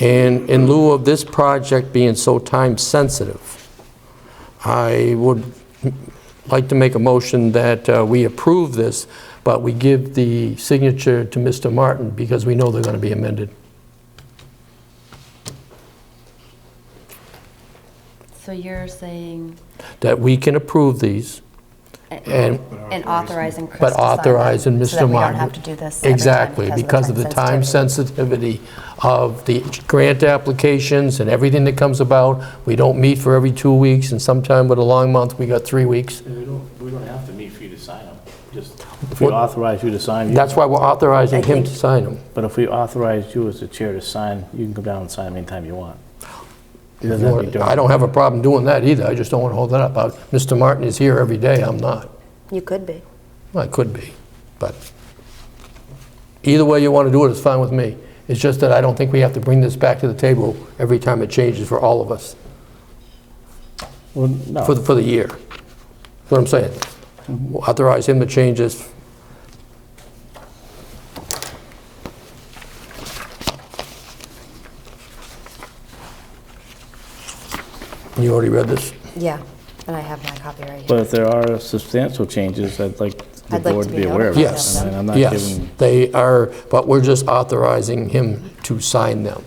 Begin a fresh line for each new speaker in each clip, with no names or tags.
And in lieu of this project being so time-sensitive, I would like to make a motion that uh, we approve this, but we give the signature to Mr. Martin because we know they're going to be amended.
So you're saying,
That we can approve these and
and authorizing Chris
But
to sign them, So
authorizing Mr.
that we don't
Martin.
have to do this every time
Exactly, because of the time
sensitivity.
sensitivity of the grant applications and everything that comes about. We don't meet for every two weeks, and sometime with a long month, we got three weeks.
We don't, we don't have to meet for you to sign them. Just, if we authorize you to sign, you-
That's why we're authorizing him to
think-
sign them.
but if we authorize you as the chair to sign, you can come down and sign anytime you want. It doesn't have to be during-
I don't have a problem doing that either, I just don't want to hold that up. Uh, Mr. Martin is here every day, I'm not.
You could be.
Well, I could be, but either way you want to do it, it's fine with me. It's just that I don't think we have to bring this back to the table every time it changes for all of us,
Well,
for
no,
the, for the year. That's what I'm saying. Authorize him to change this. You already read this?
Yeah, and I have my copy right here.
but if there are substantial changes, I'd like the
I'd like
board
to
to
be
be aware of. it.
notified of
I mean, I'm not
Yes,
giving,
they are, but we're just authorizing him to sign them.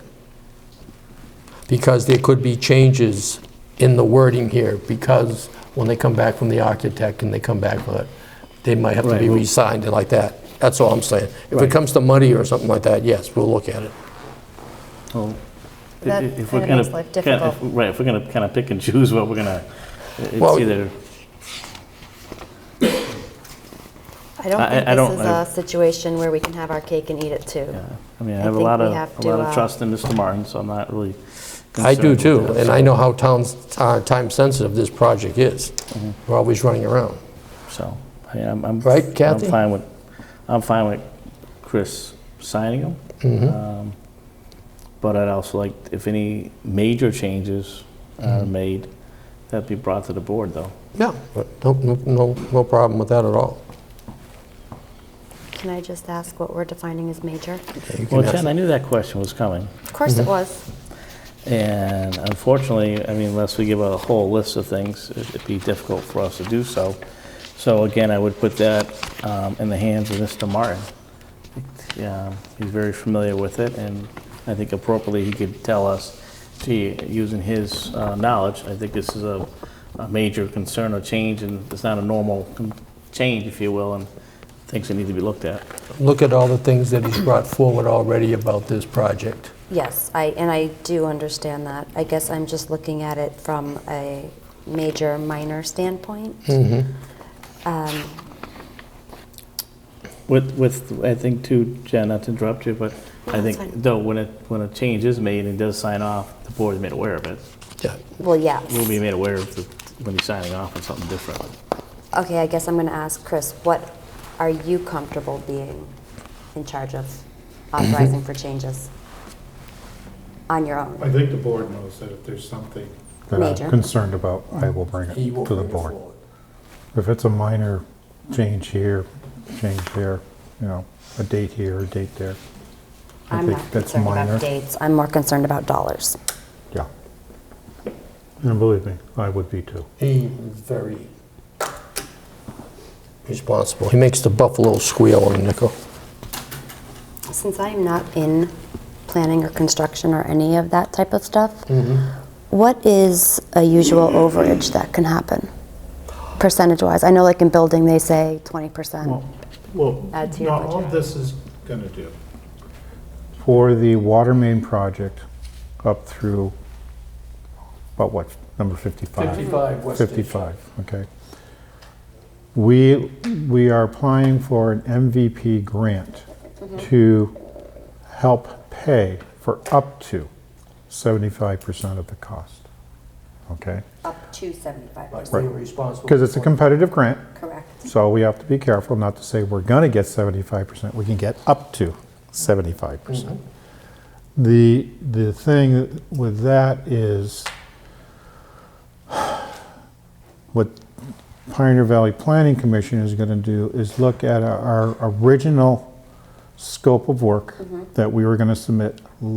Because there could be changes in the wording here, because when they come back from the architect and they come back with it, they might have to be
Right, well-
re-signed and like that. That's all I'm saying. If it
Right.
comes to money or something like that, yes, we'll look at it.
well, i- i-
That
if
kinda
we're going
makes
to.
life difficult.
Right, if we're going to kind of pick and choose what we're going to,
Well-
it's either,
I don't
I-
think
I
this
don't-
is
I-
a situation where we can have our cake and eat it too.
yeah. I mean, I
I
have a
think
lot
we
of,
have
a
to,
lot of
uh,
trust in Mr. Martin, so I'm not really
I do
concerned with
too,
that,
and
so-
I know how towns, uh, time-sensitive this project is. We're always running around.
So, I mean, I'm, I'm.
Right, Kathy?
I'm fine with, I'm fine with Chris signing
Mm-hmm.
them. Um, But I'd also like, if any major changes
Mm-hmm.
are made, that be brought to the board, though.
Yeah, but no, no, no problem with that at all.
Can I just ask what we're defining as major?
You can
Well,
ask-
Jen, I knew that question was coming,
Of course
Mm-hmm.
it was.
and unfortunately, I mean, unless we give a whole list of things, it'd be difficult for us to do so. So again, I would put that um, in the hands of Mr. Martin. Um, He's very familiar with it, and I think appropriately, he could tell us, gee, using his uh, knowledge, I think this is a, a major concern or change, and it's not a normal con- change, if you will, and things that need to be looked at.
look at all the things that he's brought forward already about this project.
Yes, I, and I do understand that. I guess I'm just looking at it from a major, minor standpoint.
Mm.
With, with, I think too, Jen, not to interrupt you, but I
No,
think,
that's fine.
though, when it, when a change is made and does sign off, the board is made aware of it.
Yeah.
Well, yes.
We'll be made aware of the, when he's signing off on something different.
Okay, I guess I'm going to ask Chris, what are you comfortable being in charge of authorizing for changes? On your own?
I think the board knows that if there's something that
Major.
I'm concerned about, I will bring it to the board. If it's a minor change here, change there, you know, a date here, a date there. I
I'm
think
not
that's
concerned
minor.
about dates, I'm more concerned about dollars.
Yeah. And believe me, I would be too.
He's very responsible. He makes the buffalo squeal on a nickel.
Since I'm not in planning or construction or any of that type of stuff,
Mm-hmm.
what is a usual overage that can happen? Percentage-wise, I know like in building, they say 20%.
Well,
Add to your now, all budget.
this is going to do. For the water main project up through, about what, number 55? 55, okay. We, we are applying for an MVP grant to help pay for up to 75% of the cost, okay?
Up to 75%,
Because it's a competitive grant,
correct.
so we have to be careful not to say we're going to get 75%, we can get up to 75%. The, the thing with that is, what Pioneer Valley Planning Commission is going to do is look at our original scope of work that we were going to submit